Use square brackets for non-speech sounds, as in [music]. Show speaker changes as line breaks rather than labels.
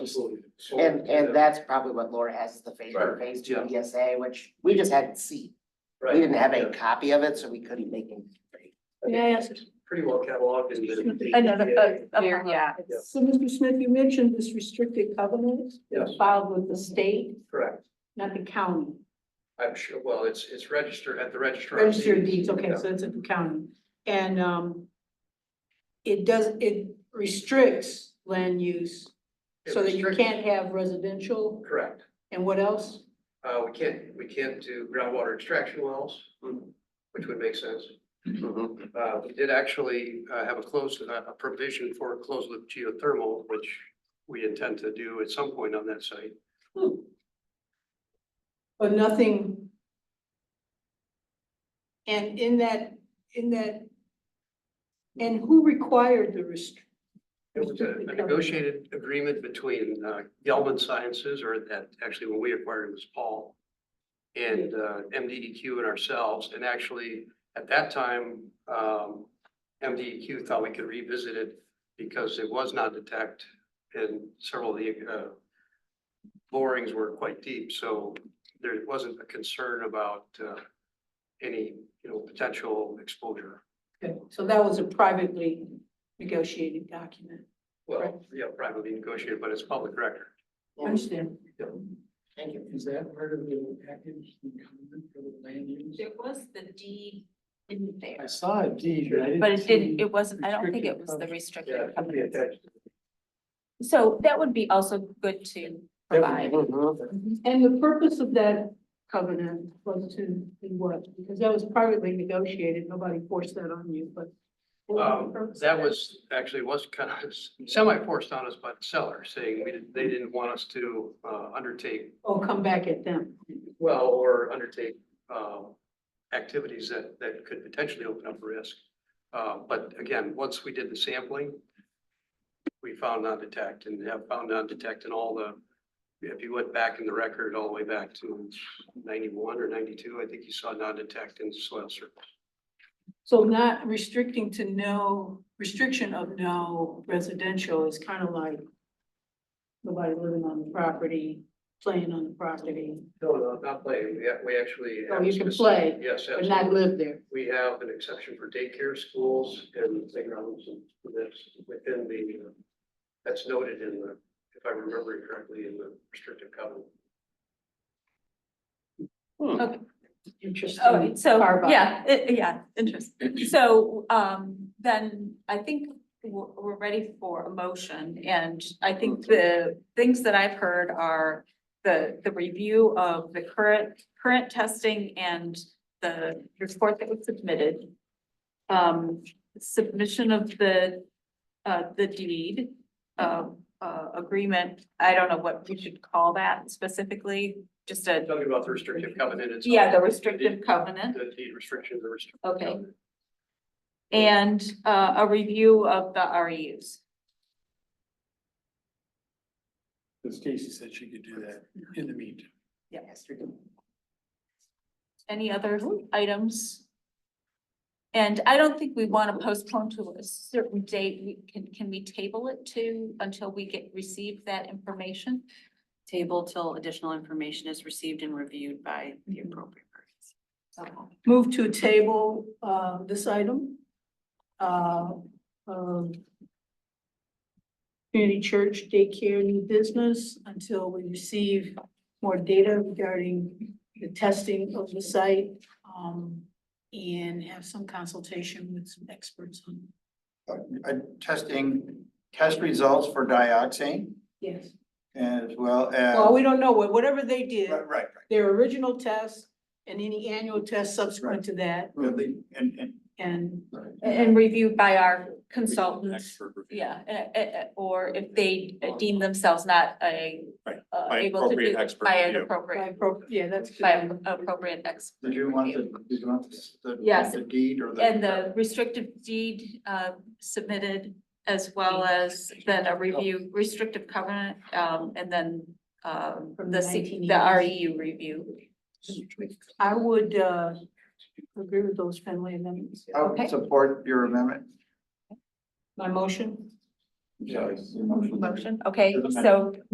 Absolutely.
And, and that's probably what Laura has is the phase one, phase two ESA, which we just hadn't seen. We didn't have a copy of it, so we couldn't make any.
May I ask
Pretty well cataloged in
[laughs]
the.
another? uh,
Here, yeah.
So, Mr. Smith, you mentioned this restricted covenant
Yes,
filed with the state,
correct.
not the county.
I'm sure, well, it's, it's registered at the registrar. of
Registered deeds, okay, so it's at the county. And, um, it does, it restricts land use
It
so that you
restricts-
can't have residential
Correct.
and what else?
Uh, we can't, we can't do groundwater extraction wells,
Mm-hmm.
which would make sense. Uh, we did actually, uh, have a closed, a a provision for closed loop geothermal, which we intend to do at some point on that site.
But nothing. And in that, in that, and who required the rest?
It was a a negotiated agreement between uh, Gelman Sciences, or that actually when we acquired it was Paul, and uh, MDEQ and ourselves. And actually, at that time, um, MDEQ thought we could revisit it because it was not detect and several of the uh, borings were quite deep. So there wasn't a concern about uh, any, you know, potential exposure.
So that was a privately negotiated document.
Well, yeah, privately negotiated, but it's public record.
Understand?
Thank you.
Is that part of the package incumbent for the land use?
There was the deed in
I
there,
saw a deed, but I didn't.
but it didn't,
see-
it wasn't, I don't think it
restricted
was the
function.
Yeah,
restricted.
it could be attached.
So that would be also good to
That would
provide.
Mm-hmm.
And the purpose of that covenant was to be what? Because that was privately negotiated, nobody forced that on you, but. what was the
Um,
purpose of
that was, actually was kind of semi forced on us by the seller, saying we didn't, they didn't want us to, uh, undertake,
Oh, come back at them.
well, or undertake, um, activities that, that could potentially open up risk. Uh, but again, once we did the sampling, we found non-detect and have found non-detect in all the, if you went back in the record all the way back to ninety-one or ninety-two, I think you saw non-detect in soil surface.
So not restricting to no, restriction of no residential is kind of like nobody living on the property, playing on the property,
No, no, not playing. We, we actually.
Oh,
have
you can
specific-
play,
Yes,
but
absolutely.
not live there.
We have an exception for daycare schools and playgrounds and that's within the, uh, that's noted in the, if I remember it correctly, in the restrictive covenant.
Oh,
Interesting.
Oh, so,
Carve out.
yeah, it- yeah, interesting. So, um, then I think we're, we're ready for a motion. And I think the things that I've heard are the, the review of the current, current testing and the report that was submitted. Um, submission of the, uh, the deed, uh, uh, agreement. I don't know what we should call that specifically, just a,
Talking about the restrictive covenant. it's-
yeah, the restrictive covenant.
The deed restriction, the restrictive.
Okay.
covenant.
And uh, a review of the E REUs.
Because Casey said she could do that in the meantime.
Any other items? And I don't think we want to postpone to a certain date. We can, can we table it to until we get, receive that information?
Table till additional information is received and reviewed by the appropriate parties.
Mm-hmm. Okay.
Move to table, uh, this item. Uh, um. Community church daycare new business until we receive more data regarding the testing of the site. Um, and have some consultation with some experts on.
uh, uh, testing, test results for dioxane
Yes.
as well as.
Well, we don't know, what whatever they did,
Right, right,
their original test and any annual test subsequent to that
right. And, and.
and.
And reviewed by our consultants. Yeah, eh, eh, eh, or if they deem themselves not a
Right,
uh,
by
able to
appropriate
do
expert
by an
review.
By
appropriate,
appro- Yeah, that's. good.
by appropriate expert.
Did you want the, did you want the,
Yes.
the deed or the?
And the restrictive deed uh, submitted as well as then a review, restrictive covenant, um, and then um,
From
the
the
C,
1980s.
the REU review.
I would uh agree with those friendly amendments.
I would
okay.
support your amendment.
My motion?
Yes.
Motion, okay, so